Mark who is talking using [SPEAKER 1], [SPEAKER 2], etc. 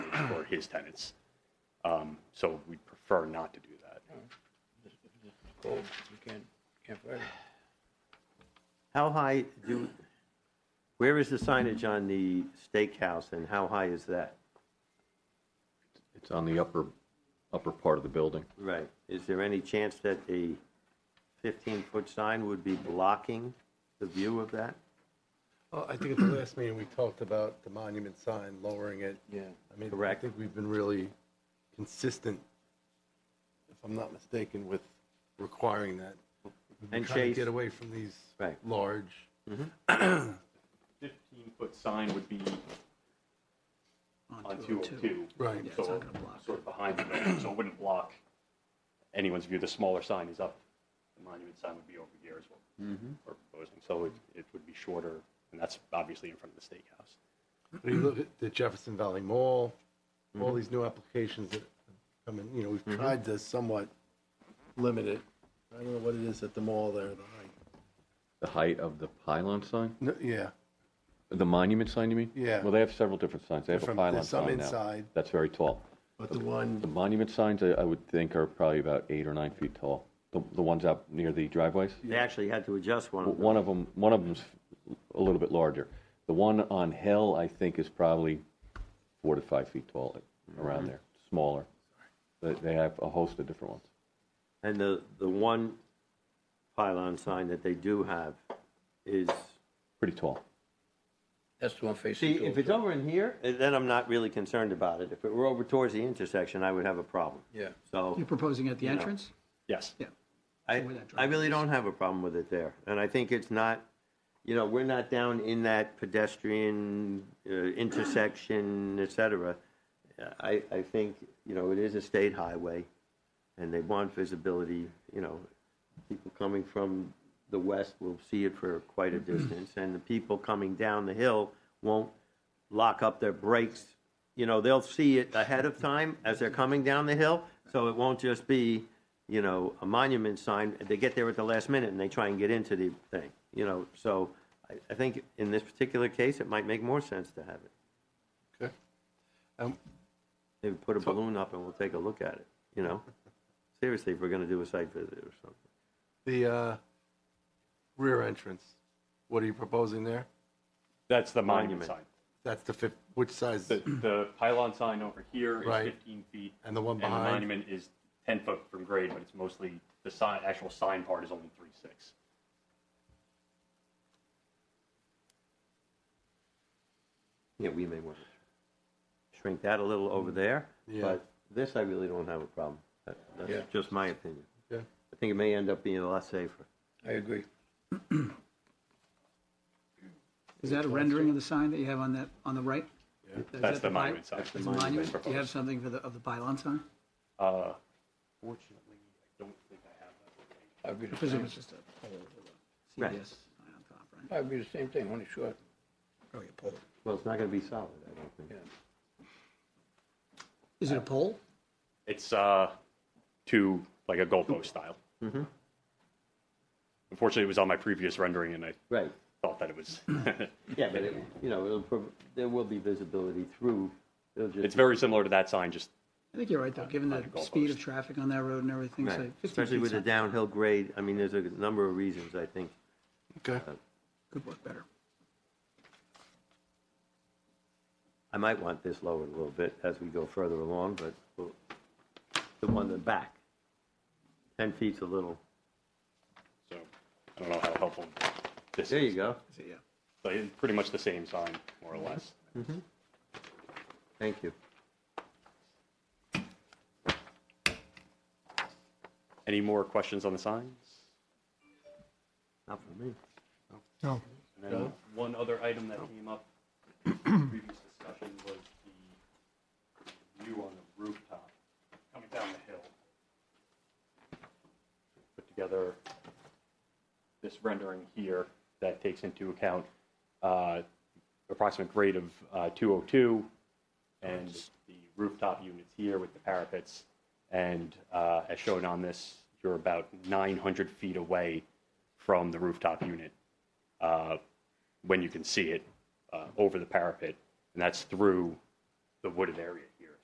[SPEAKER 1] for his tenants. Um, So we'd prefer not to do that.
[SPEAKER 2] Cold, Oh, you can't, can't fire it.
[SPEAKER 3] How high do, where is the signage on the steakhouse and how high is that?
[SPEAKER 4] It's on the upper, upper part of the building.
[SPEAKER 3] Right. Is there any chance that a 15-foot sign would be blocking the view of that?
[SPEAKER 5] Well, I think at the last meeting, we talked about the monument sign, lowering it.
[SPEAKER 2] Yeah.
[SPEAKER 5] I mean, I
[SPEAKER 3] Correct.
[SPEAKER 5] think we've been really consistent, if I'm not mistaken, with requiring that. We've been
[SPEAKER 3] And
[SPEAKER 5] trying to
[SPEAKER 3] Chase-
[SPEAKER 5] Get away from these
[SPEAKER 3] Right.
[SPEAKER 5] large,
[SPEAKER 1] 15-foot sign would be on 202.
[SPEAKER 5] right,
[SPEAKER 1] So sort of behind the building, so it wouldn't block anyone's view. The smaller sign is up, the monument sign would be over here is what we're proposing. So it, it would be shorter, and that's obviously in front of the steakhouse.
[SPEAKER 5] When you look at the Jefferson Valley Mall,
[SPEAKER 3] Mm-hmm.
[SPEAKER 5] all these new applications that come in, you know, we've tried to somewhat limit it. I don't know what it is at the mall there, the height.
[SPEAKER 4] The height of the pylon sign?
[SPEAKER 5] No, Yeah,
[SPEAKER 4] The monument sign, you mean?
[SPEAKER 5] Yeah.
[SPEAKER 4] Well, they have several different signs. They have a
[SPEAKER 5] Different-
[SPEAKER 4] pylon
[SPEAKER 5] there's some
[SPEAKER 4] sign now.
[SPEAKER 5] inside.
[SPEAKER 4] That's very tall.
[SPEAKER 5] but the one,
[SPEAKER 4] The monument signs, I, I would think, are probably about eight or nine feet tall. The, the ones out near the driveways?
[SPEAKER 3] They actually had to adjust one of them.
[SPEAKER 4] One of them, one of them's a little bit larger. The one on Hill, I think, is probably four to five feet tall,
[SPEAKER 5] Mm-hmm.
[SPEAKER 4] around there, smaller. But they have a host of different ones.
[SPEAKER 3] And the, the one pylon sign that they do have is,
[SPEAKER 4] Pretty tall.
[SPEAKER 2] That's the one facing.
[SPEAKER 3] see, if it's over in here, eh, then I'm not really concerned about it. If it were over towards the intersection, I would have a problem.
[SPEAKER 2] Yeah.
[SPEAKER 3] So
[SPEAKER 6] You're proposing at the
[SPEAKER 3] You know.
[SPEAKER 6] entrance?
[SPEAKER 1] Yes.
[SPEAKER 6] Yeah.
[SPEAKER 3] I,
[SPEAKER 6] where that
[SPEAKER 3] I really
[SPEAKER 6] driveway
[SPEAKER 3] don't have a problem with it there. And I think it's not, you know, we're not down in that pedestrian uh, intersection, et cetera. I, I think, you know, it is a state highway and they want visibility, you know. People coming from the west will see it for quite a distance and the people coming down the hill won't lock up their brakes. You know, they'll see it ahead of time as they're coming down the hill, so it won't just be, you know, a monument sign. They get there at the last minute and they try and get into the thing, you know. So I, I think in this particular case, it might make more sense to have it.
[SPEAKER 5] okay. Um,
[SPEAKER 3] Maybe put a balloon up and we'll take a look at it, you know? Seriously, if we're gonna do a site visit or something.
[SPEAKER 5] The uh, rear entrance, what are you proposing there?
[SPEAKER 1] That's the monument
[SPEAKER 3] Monument.
[SPEAKER 1] sign.
[SPEAKER 5] That's the fif, which size?
[SPEAKER 1] The, the pylon sign over here is
[SPEAKER 5] Right.
[SPEAKER 1] 15 feet.
[SPEAKER 5] And the one
[SPEAKER 1] And the
[SPEAKER 5] behind?
[SPEAKER 1] monument is 10 foot from grade, but it's mostly, the sign, actual sign part is only 3.6.
[SPEAKER 3] Yeah, we may want to shrink that a little over there,
[SPEAKER 5] Yeah.
[SPEAKER 3] but this I really don't have a problem. That- That's
[SPEAKER 2] Yeah.
[SPEAKER 3] just my opinion.
[SPEAKER 5] Yeah.
[SPEAKER 3] I think it may end up being a lot safer.
[SPEAKER 2] I agree.
[SPEAKER 6] Is that a rendering of the sign that you have on that, on the right? Is that
[SPEAKER 1] That's the
[SPEAKER 6] pi-
[SPEAKER 1] monument sign.
[SPEAKER 6] That's the monument? Do you have something for the, of the pylon sign?
[SPEAKER 1] Uh, Fortunately, I don't think I have that.
[SPEAKER 2] I'd be
[SPEAKER 6] I
[SPEAKER 2] the
[SPEAKER 6] presume
[SPEAKER 2] same,
[SPEAKER 6] it's just a
[SPEAKER 3] Right.
[SPEAKER 6] CBS sign on top, right?
[SPEAKER 2] I'd be the same thing, only short. Probably a pole.
[SPEAKER 3] Well, it's not going to be solid, I don't think.
[SPEAKER 2] Yeah.
[SPEAKER 6] Is it a pole?
[SPEAKER 1] It's uh, to like a goalpost style. Unfortunately, it was on my previous rendering, and I
[SPEAKER 3] Right,
[SPEAKER 1] thought that it was.
[SPEAKER 3] yeah, but it, you know, it'll, prov- there will be visibility through, it'll just.
[SPEAKER 1] it's very similar to that sign, just
[SPEAKER 6] I think you're right, though, given the
[SPEAKER 1] Like a goalpost.
[SPEAKER 6] speed of traffic on that road and everything,
[SPEAKER 3] Right.
[SPEAKER 6] so 15
[SPEAKER 3] Especially
[SPEAKER 6] feet's
[SPEAKER 3] with the
[SPEAKER 6] not-
[SPEAKER 3] downhill grade, I mean, there's a number of reasons, I think.
[SPEAKER 5] Okay.
[SPEAKER 6] Could work better.
[SPEAKER 3] I might want this lowered a little bit as we go further along, but we'll- the one in the back, 10 feet's a little,
[SPEAKER 1] so I don't know how helpful this
[SPEAKER 3] there
[SPEAKER 1] is.
[SPEAKER 3] you go,
[SPEAKER 6] Is it, yeah.
[SPEAKER 1] But it's pretty much the same sign, more or less.
[SPEAKER 3] thank you.
[SPEAKER 1] Any more questions on the signs?
[SPEAKER 3] Not for me.
[SPEAKER 1] And then one other item that came up in the previous discussion was the view on the rooftop coming down the hill. Put together this rendering here that takes into account uh, approximate grade of uh, 202 and the rooftop units here with the parapets. And uh, as shown on this, you're about 900 feet away from the rooftop unit uh, when you can see it uh, over the parapet, and that's through the wooded area